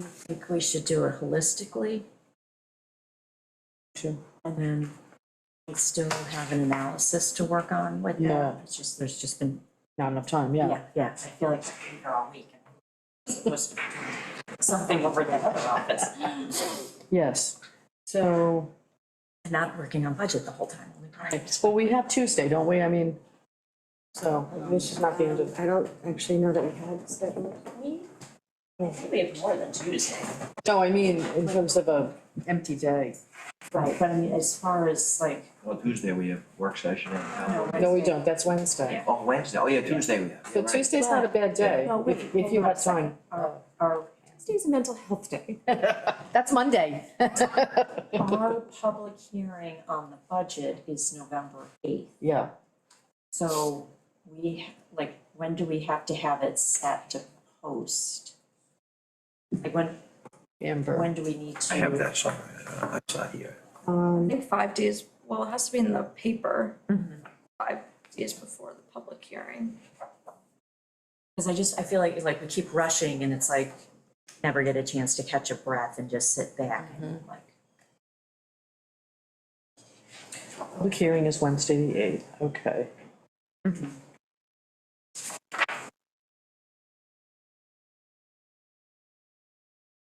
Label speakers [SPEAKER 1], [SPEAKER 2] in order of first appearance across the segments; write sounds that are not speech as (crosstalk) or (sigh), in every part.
[SPEAKER 1] think we should do it holistically
[SPEAKER 2] Sure.
[SPEAKER 1] and then we still have an analysis to work on with that.
[SPEAKER 2] Yeah.
[SPEAKER 1] It's just, there's just been,
[SPEAKER 2] Not enough time,
[SPEAKER 1] yeah,
[SPEAKER 2] yeah.
[SPEAKER 1] yeah, I feel like I've been here all week. and it's supposed to be doing Something over at the other office. (laughs)
[SPEAKER 2] Yes. So,
[SPEAKER 1] And Not working on budget the whole time. only part of it.
[SPEAKER 2] well, we have Tuesday, don't we? I mean, so this is not the end of,
[SPEAKER 3] I don't actually know that we had scheduled.
[SPEAKER 1] I think we have more than Tuesday.
[SPEAKER 2] no, I mean, in terms of a empty day.
[SPEAKER 1] Right, but I mean, as far as like,
[SPEAKER 4] Well, Tuesday we have work session and, uh,
[SPEAKER 2] No, we don't, that's Wednesday.
[SPEAKER 4] oh, Wednesday, oh yeah, Tuesday we have.
[SPEAKER 2] So Tuesday's not a bad day,
[SPEAKER 1] No, wait,
[SPEAKER 2] if, if you
[SPEAKER 1] hold on a
[SPEAKER 2] have time.
[SPEAKER 1] our, our,
[SPEAKER 3] Tuesday's a mental health
[SPEAKER 2] (laughs)
[SPEAKER 3] day.
[SPEAKER 2] That's Monday.
[SPEAKER 1] our public hearing on the budget is November eighth.
[SPEAKER 2] Yeah,
[SPEAKER 1] So we, like, when do we have to have it set to post? Like, when,
[SPEAKER 2] Amber.
[SPEAKER 1] when do we need to?
[SPEAKER 4] I have that somewhere, I saw it here.
[SPEAKER 3] Um,
[SPEAKER 5] I think five days, well, it has to be in the paper. Five days before the public hearing.
[SPEAKER 1] Cause I just, I feel like, like we keep rushing and it's like, never get a chance to catch a breath and just sit back and
[SPEAKER 3] Mm-hmm.
[SPEAKER 1] like.
[SPEAKER 2] Public hearing is Wednesday, the eighth, okay.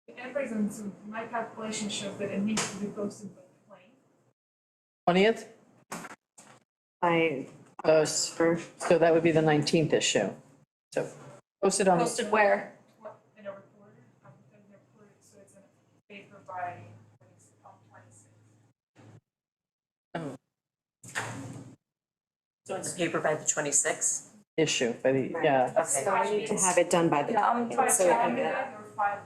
[SPEAKER 6] It brings them to, my calculation shows that it needs to be posted by the plane.
[SPEAKER 2] Twentieth?
[SPEAKER 3] I,
[SPEAKER 2] Uh, s- so that would be the nineteenth issue. So posted on,
[SPEAKER 5] Posted where?
[SPEAKER 6] what, in a reporter, I'm gonna report it, so it's in a paper by, when it's on twenty-six.
[SPEAKER 1] So it's paper by the twenty-sixth?
[SPEAKER 2] issue, by the, yeah,
[SPEAKER 1] Okay.
[SPEAKER 3] so I need to have it done by the.
[SPEAKER 5] Yeah, I'm
[SPEAKER 3] Yeah,
[SPEAKER 5] fine.
[SPEAKER 3] so we can get it.
[SPEAKER 6] Or five,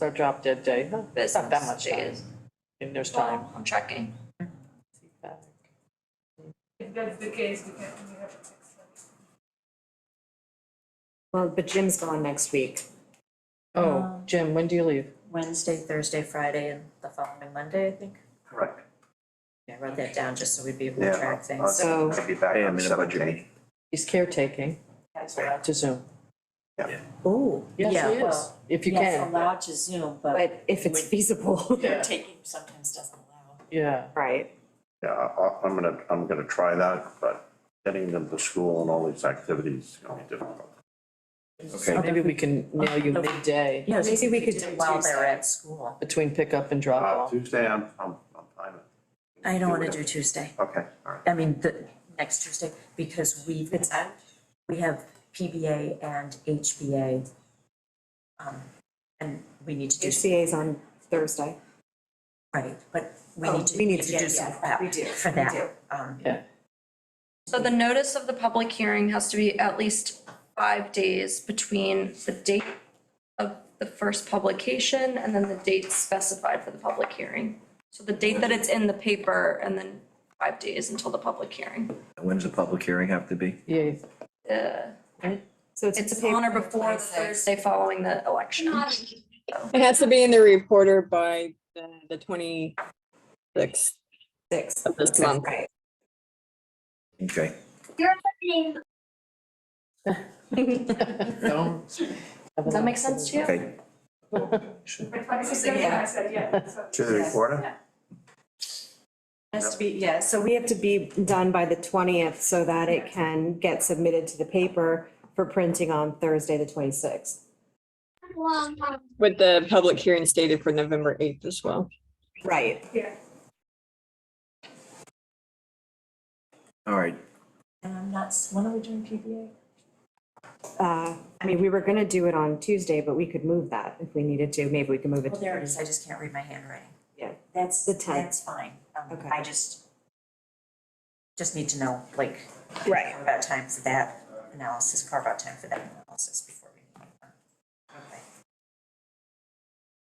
[SPEAKER 2] so drop dead day. Huh, It's not that
[SPEAKER 5] Business
[SPEAKER 2] much time.
[SPEAKER 5] days.
[SPEAKER 2] And there's time.
[SPEAKER 5] Well, I'm checking.
[SPEAKER 6] if that's the case, we can, we have a six.
[SPEAKER 3] Well, but Jim's gone next week.
[SPEAKER 6] um,
[SPEAKER 2] Oh, Jim, when do you leave?
[SPEAKER 1] Wednesday, Thursday, Friday, and the following Monday, I think.
[SPEAKER 7] Correct.
[SPEAKER 1] Yeah, I wrote that down just so we'd be able to track things.
[SPEAKER 3] So-
[SPEAKER 7] I'll be back on the seventeenth.
[SPEAKER 2] He's caretaking, allowed to Zoom.
[SPEAKER 1] Oh,
[SPEAKER 2] Yes,
[SPEAKER 1] yeah,
[SPEAKER 2] he is,
[SPEAKER 1] well,
[SPEAKER 2] if you
[SPEAKER 1] yes,
[SPEAKER 2] can,
[SPEAKER 1] allowed to Zoom, but
[SPEAKER 3] But if it's
[SPEAKER 1] (laughs)
[SPEAKER 3] feasible,
[SPEAKER 2] (laughs) Yeah.
[SPEAKER 1] taking sometimes doesn't allow.
[SPEAKER 2] yeah.
[SPEAKER 3] right?
[SPEAKER 7] Yeah, I, I'm gonna, I'm gonna try that, but getting them to school and all these activities is gonna be difficult.
[SPEAKER 4] Okay,
[SPEAKER 2] Maybe we can nail you midday
[SPEAKER 1] Yeah,
[SPEAKER 3] Maybe we could
[SPEAKER 1] do
[SPEAKER 3] do
[SPEAKER 1] it while they're
[SPEAKER 3] Tuesday.
[SPEAKER 1] at school.
[SPEAKER 2] between pickup and drop
[SPEAKER 7] Uh,
[SPEAKER 2] off.
[SPEAKER 7] Tuesday, I'm, I'm, I'm fine.
[SPEAKER 1] I don't wanna
[SPEAKER 7] it.
[SPEAKER 1] do Tuesday,
[SPEAKER 7] Okay, all right.
[SPEAKER 1] I mean, the, next Tuesday, because we've, we have PBA and HBA. Um, and we need to do,
[SPEAKER 3] HCA's on Thursday.
[SPEAKER 1] right, but we
[SPEAKER 3] Oh,
[SPEAKER 1] need to,
[SPEAKER 3] we
[SPEAKER 1] we
[SPEAKER 3] need
[SPEAKER 1] need
[SPEAKER 3] to
[SPEAKER 1] to do
[SPEAKER 3] get-
[SPEAKER 1] some
[SPEAKER 3] yeah,
[SPEAKER 1] prep
[SPEAKER 3] we do,
[SPEAKER 1] for
[SPEAKER 3] we
[SPEAKER 1] that.
[SPEAKER 3] do.
[SPEAKER 1] Um,
[SPEAKER 2] Yeah,
[SPEAKER 5] So the notice of the public hearing has to be at least five days between the date of the first publication and then the date specified for the public hearing. So the date that it's in the paper and then five days until the public hearing.
[SPEAKER 4] when's the public hearing have to be?
[SPEAKER 2] yeah,
[SPEAKER 5] Uh,
[SPEAKER 3] So it's.
[SPEAKER 5] It's on or before the Thursday following the election.
[SPEAKER 8] It has to be in the reporter by the, the twenty-sixth
[SPEAKER 3] Six,
[SPEAKER 8] of this month.
[SPEAKER 3] right.
[SPEAKER 4] Okay,
[SPEAKER 2] Does
[SPEAKER 5] Does that make sense to you?
[SPEAKER 4] okay. (laughs)
[SPEAKER 6] By twenty-six, I said, yeah, so.
[SPEAKER 7] To the recorder?
[SPEAKER 1] Has to be, yes.
[SPEAKER 3] So we have to be done by the twentieth so that it can get submitted to the paper for printing on Thursday, the twenty-sixth.
[SPEAKER 8] With the public hearing stated for November eighth as well.
[SPEAKER 3] Right.
[SPEAKER 4] All right,
[SPEAKER 1] And I'm not, s- when are we doing PBA?
[SPEAKER 3] Uh, I mean, we were gonna do it on Tuesday, but we could move that if we needed to. Maybe we could move it
[SPEAKER 1] Well,
[SPEAKER 3] to
[SPEAKER 1] there it
[SPEAKER 3] Thursday.
[SPEAKER 1] is, I just can't read my handwriting.
[SPEAKER 3] Yeah.
[SPEAKER 1] That's,
[SPEAKER 3] The tenth.
[SPEAKER 1] that's fine. Um,
[SPEAKER 3] Okay.
[SPEAKER 1] I just, just need to know, like,
[SPEAKER 3] Right.
[SPEAKER 1] carve out time for that analysis, carve out time for that analysis before we. Okay.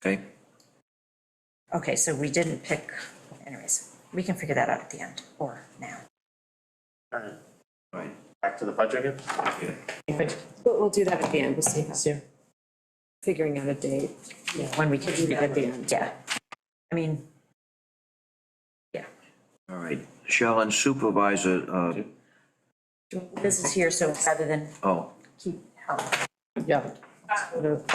[SPEAKER 4] okay.
[SPEAKER 1] Okay, so we didn't pick, anyways, we can figure that out at the end or now.
[SPEAKER 7] All right,
[SPEAKER 4] All right,
[SPEAKER 7] Back to the budget again?
[SPEAKER 4] yeah.
[SPEAKER 3] But we'll do that at the end. We'll see how,
[SPEAKER 2] Sue?
[SPEAKER 3] figuring out a date.
[SPEAKER 1] When we can do that
[SPEAKER 3] at the end.
[SPEAKER 1] Yeah. I mean,
[SPEAKER 4] All right, Shell and supervisor, uh,
[SPEAKER 1] this is here, so rather than
[SPEAKER 4] oh.
[SPEAKER 1] keep, um,
[SPEAKER 2] Yeah.